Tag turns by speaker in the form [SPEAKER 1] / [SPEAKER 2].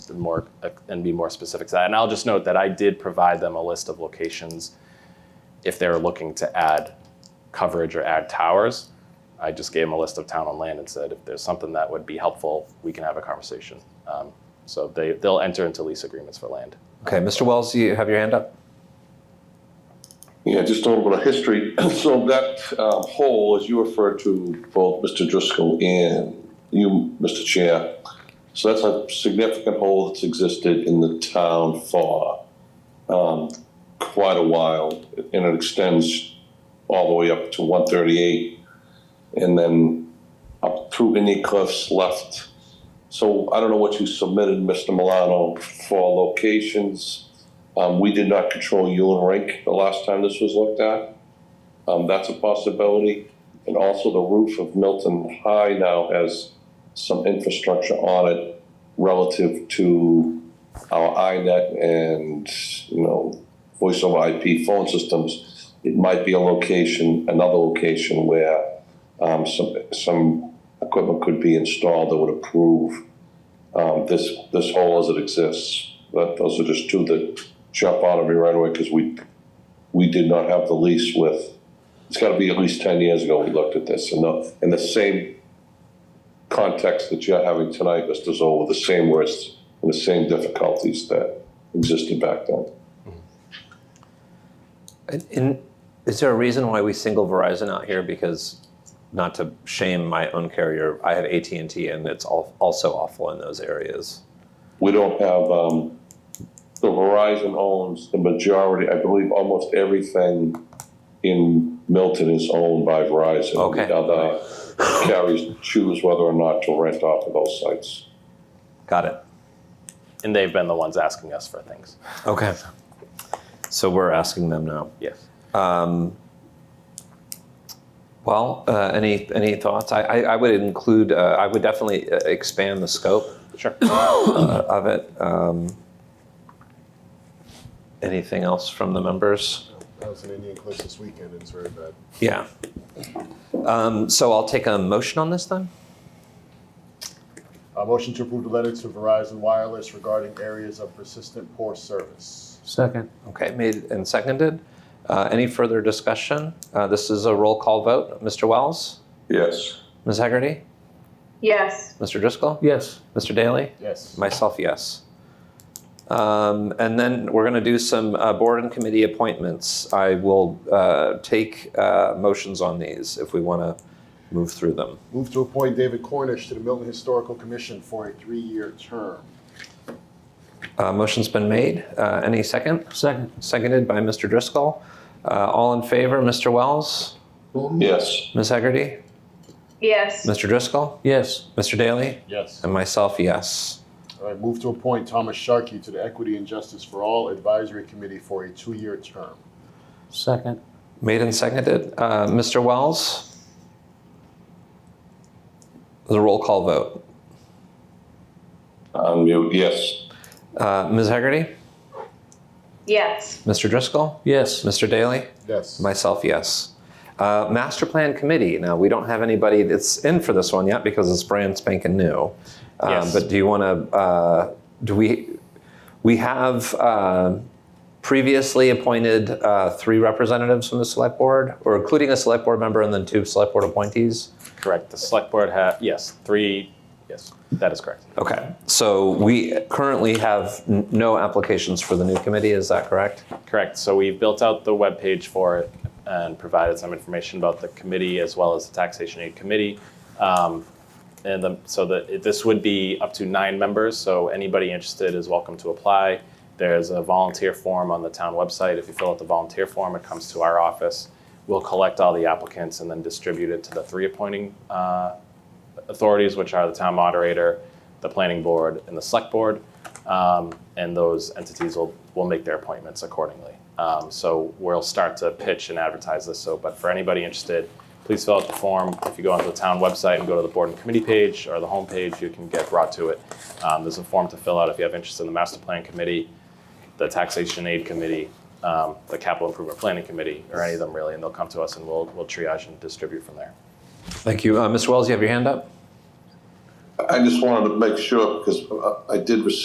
[SPEAKER 1] and more uh, and be more specific to that. And I'll just note that I did provide them a list of locations if they were looking to add coverage or add towers. I just gave them a list of town and land and said, if there's something that would be helpful, we can have a conversation. Um, so they, they'll enter into lease agreements for land.
[SPEAKER 2] Okay, Mr. Wells, you have your hand up?
[SPEAKER 3] Yeah, just a little bit of history. So that um, hole, as you referred to, both Mr. Driscoll and you, Mr. Chair, so that's a significant hole that's existed in the town for um, quite a while, and it extends all the way up to 138, and then up through Indian Cliffs left. So I don't know what you submitted, Mr. Milano, for locations. Um, we did not control Yulin Rink the last time this was looked at. Um, that's a possibility. And also the roof of Milton High now has some infrastructure on it relative to our INET and, you know, voice over IP phone systems. It might be a location, another location where, um, some, some equipment could be installed that would improve, um, this, this hole as it exists. That, those are just two that jump out of me right away because we, we did not have the lease with, it's got to be at least 10 years ago we looked at this. And the, and the same context that you're having tonight, Mr. Zoll, with the same words and the same difficulties that existed back then.
[SPEAKER 2] And, and is there a reason why we single Verizon out here? Because not to shame my own carrier, I have AT and T, and it's al- also awful in those areas.
[SPEAKER 3] We don't have, um, the Verizon owns the majority, I believe, almost everything in Milton is owned by Verizon.
[SPEAKER 2] Okay.
[SPEAKER 3] The other carriers choose whether or not to rent off of those sites.
[SPEAKER 2] Got it.
[SPEAKER 1] And they've been the ones asking us for things.
[SPEAKER 2] Okay. So we're asking them now.
[SPEAKER 1] Yes.
[SPEAKER 2] Well, uh, any any thoughts? I, I, I would include. Uh, I would definitely uh, expand the scope
[SPEAKER 1] Sure.
[SPEAKER 2] of it. Um, anything else from the members?
[SPEAKER 4] I was in Indian Cliffs this weekend, and it's very bad.
[SPEAKER 2] Yeah. Um, so I'll take a motion on this then.
[SPEAKER 4] Uh, motion to approve the letter to Verizon Wireless regarding areas of persistent poor service.
[SPEAKER 5] Second.
[SPEAKER 2] Okay, made and seconded. Uh, any further discussion? Uh, this is a roll call vote. Mr. Wells,
[SPEAKER 3] Yes.
[SPEAKER 2] Ms. Hegarty,
[SPEAKER 6] Yes,
[SPEAKER 2] Mr. Driscoll,
[SPEAKER 5] Yes.
[SPEAKER 2] Mr. Daly,
[SPEAKER 4] Yes.
[SPEAKER 2] myself, yes. Um, and then we're going to do some uh, board and committee appointments. I will uh, take uh, motions on these if we want to move through them.
[SPEAKER 4] Move to appoint David Cornish to the Milton Historical Commission for a three-year term.
[SPEAKER 2] Uh, motion's been made. Uh, any second?
[SPEAKER 5] Second.
[SPEAKER 2] Seconded by Mr. Driscoll. Uh, all in favor, Mr. Wells,
[SPEAKER 3] Yes.
[SPEAKER 2] Ms. Hegarty,
[SPEAKER 6] yes,
[SPEAKER 2] Mr. Driscoll,
[SPEAKER 5] Yes.
[SPEAKER 2] Mr. Daly,
[SPEAKER 4] Yes.
[SPEAKER 2] And myself, yes.
[SPEAKER 4] All right, move to appoint Thomas Sharkey to the Equity and Justice for All Advisory Committee for a two-year term.
[SPEAKER 5] Second.
[SPEAKER 2] Made and seconded. Uh, Mr. Wells? The roll call vote.
[SPEAKER 3] Um, you, yes.
[SPEAKER 2] Uh, Ms. Hegarty?
[SPEAKER 6] yes,
[SPEAKER 2] Mr. Driscoll?
[SPEAKER 5] Yes.
[SPEAKER 2] Mr. Daly?
[SPEAKER 4] Yes.
[SPEAKER 2] Myself, yes. Uh, Master Plan Committee. Now, we don't have anybody that's in for this one yet because it's brand spanking new. Um,
[SPEAKER 1] Yes.
[SPEAKER 2] But do you want to, uh, do we, we have uh, previously appointed uh, three representatives from the select board, or including a select board member and then two select board appointees?
[SPEAKER 1] Correct. The select board ha yes, three, yes, that is correct.
[SPEAKER 2] Okay, so we currently have n- no applications for the new committee, is that correct?
[SPEAKER 1] Correct. So we've built out the webpage for it and provided some information about the committee as well as the taxation aid committee. Um, and the, so that it- this would be up to nine members. So anybody interested is welcome to apply. There's a volunteer form on the town website. If you fill out the volunteer form, it comes to our office. We'll collect all the applicants and then distribute it to the three appointing uh, authorities, which are the town moderator, the planning board, and the select board. Um, and those entities will, will make their appointments accordingly. Um, so we'll start to pitch and advertise this. So, but for anybody interested, please fill out the form. If you go onto the town website and go to the board and committee page or the homepage, you can get brought to it. Um, there's a form to fill out if you have interest in the master plan committee, the taxation aid committee, um, the capital improvement planning committee, or any of them really, and they'll come to us and we'll, we'll triage and distribute from there.
[SPEAKER 2] Thank you. Uh, Mr. Wells, you have your hand up?
[SPEAKER 3] uh, I just wanted to make sure, because I- I did receive